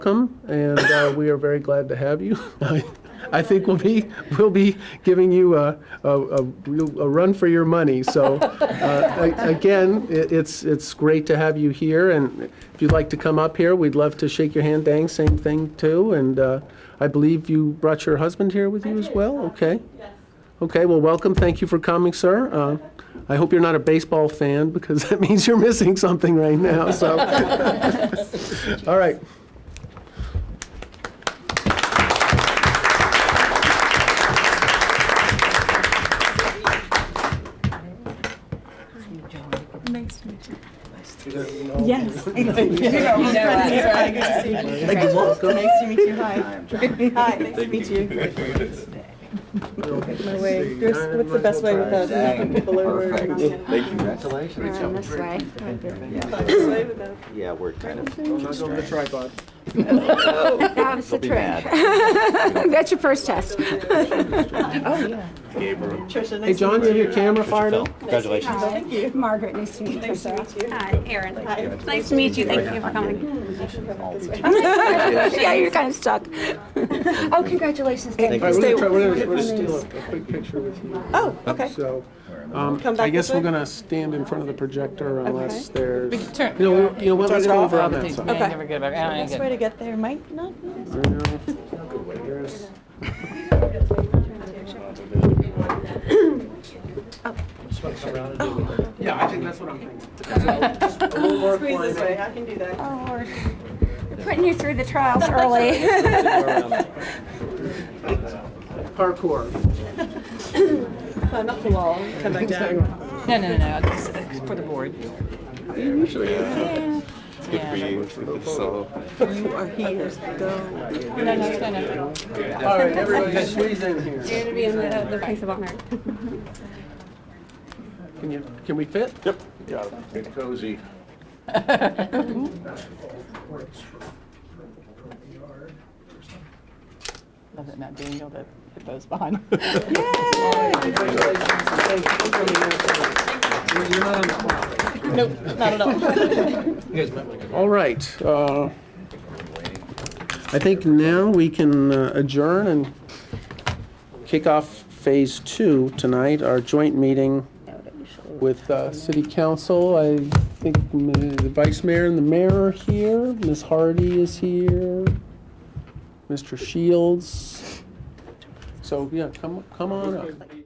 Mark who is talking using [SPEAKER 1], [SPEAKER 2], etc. [SPEAKER 1] welcome, and uh, we are very glad to have you. I think we'll be, we'll be giving you a, a, a real- a run for your money, so, uh, a- again, it- it's, it's great to have you here, and if you'd like to come up here, we'd love to shake your hand, Dang, same thing too, and uh, I believe you brought your husband here with you as well? Okay. Okay, well, welcome, thank you for coming, sir. Uh, I hope you're not a baseball fan, because that means you're missing something right now, so. All right.
[SPEAKER 2] Nice to meet you. Yes. Nice to meet you. Hi. Hi, nice to meet you. My way. There's- What's the best way without knocking people over? and knocking-
[SPEAKER 3] Congratulations.
[SPEAKER 4] Around this way.
[SPEAKER 2] Best way without-
[SPEAKER 3] Yeah, we're kind of.
[SPEAKER 4] That was the
[SPEAKER 3] be
[SPEAKER 4] trick.
[SPEAKER 3] bad.
[SPEAKER 4] That's your first test.
[SPEAKER 2] Tricia,
[SPEAKER 1] Hey,
[SPEAKER 2] nice to
[SPEAKER 1] John,
[SPEAKER 2] meet
[SPEAKER 1] do
[SPEAKER 2] you.
[SPEAKER 1] your camera fired up?
[SPEAKER 3] Congratulations.
[SPEAKER 2] Thank you.
[SPEAKER 4] Margaret, nice to meet you.
[SPEAKER 2] Nice to meet you.
[SPEAKER 5] Hi, Erin. It's nice to meet you. Thank you for coming.
[SPEAKER 4] Yeah, you're kind of stuck. Oh, congratulations.
[SPEAKER 1] All right, we're gonna try, we're gonna, we're gonna steal a a quick picture with you.
[SPEAKER 2] Oh, okay.
[SPEAKER 1] So, um,
[SPEAKER 2] Come back
[SPEAKER 1] I guess
[SPEAKER 2] this
[SPEAKER 1] we're
[SPEAKER 2] way?
[SPEAKER 1] gonna stand in front of the projector unless there's,
[SPEAKER 6] We can turn-
[SPEAKER 1] you know, you know what, let's
[SPEAKER 6] Turn it
[SPEAKER 1] go
[SPEAKER 6] off.
[SPEAKER 1] over on that
[SPEAKER 6] These
[SPEAKER 1] side.
[SPEAKER 6] may
[SPEAKER 2] Okay.
[SPEAKER 6] never get back. I don't
[SPEAKER 2] Best
[SPEAKER 6] get-
[SPEAKER 2] way to get there might not be.
[SPEAKER 1] Here's- Yeah, I think that's what I'm thinking.
[SPEAKER 2] Squeeze this way, I can do that.
[SPEAKER 4] Putting you through the trials early.
[SPEAKER 1] Parkour.
[SPEAKER 2] Uh, Not for long, come back down.
[SPEAKER 6] No, no, no, no, it's- it's for the board.
[SPEAKER 3] It's good for you. It's good solo.
[SPEAKER 2] You are here, go.
[SPEAKER 6] No, no, no, no.
[SPEAKER 1] All right, everybody squeeze in here.
[SPEAKER 5] to be in the, the place of honor.
[SPEAKER 1] Can you, can we fit? Yep.
[SPEAKER 3] Get cozy.
[SPEAKER 6] Love that Matt Daniel, that hippo's behind. Nope, not at all.
[SPEAKER 1] All right. uh, I think now we can uh, adjourn and kick off Phase Two tonight, our joint meeting with uh, City Council. I think m- the Vice Mayor and the Mayor are here. Ms. Hardy is here. Mr. Shields. So, yeah, come, come on up.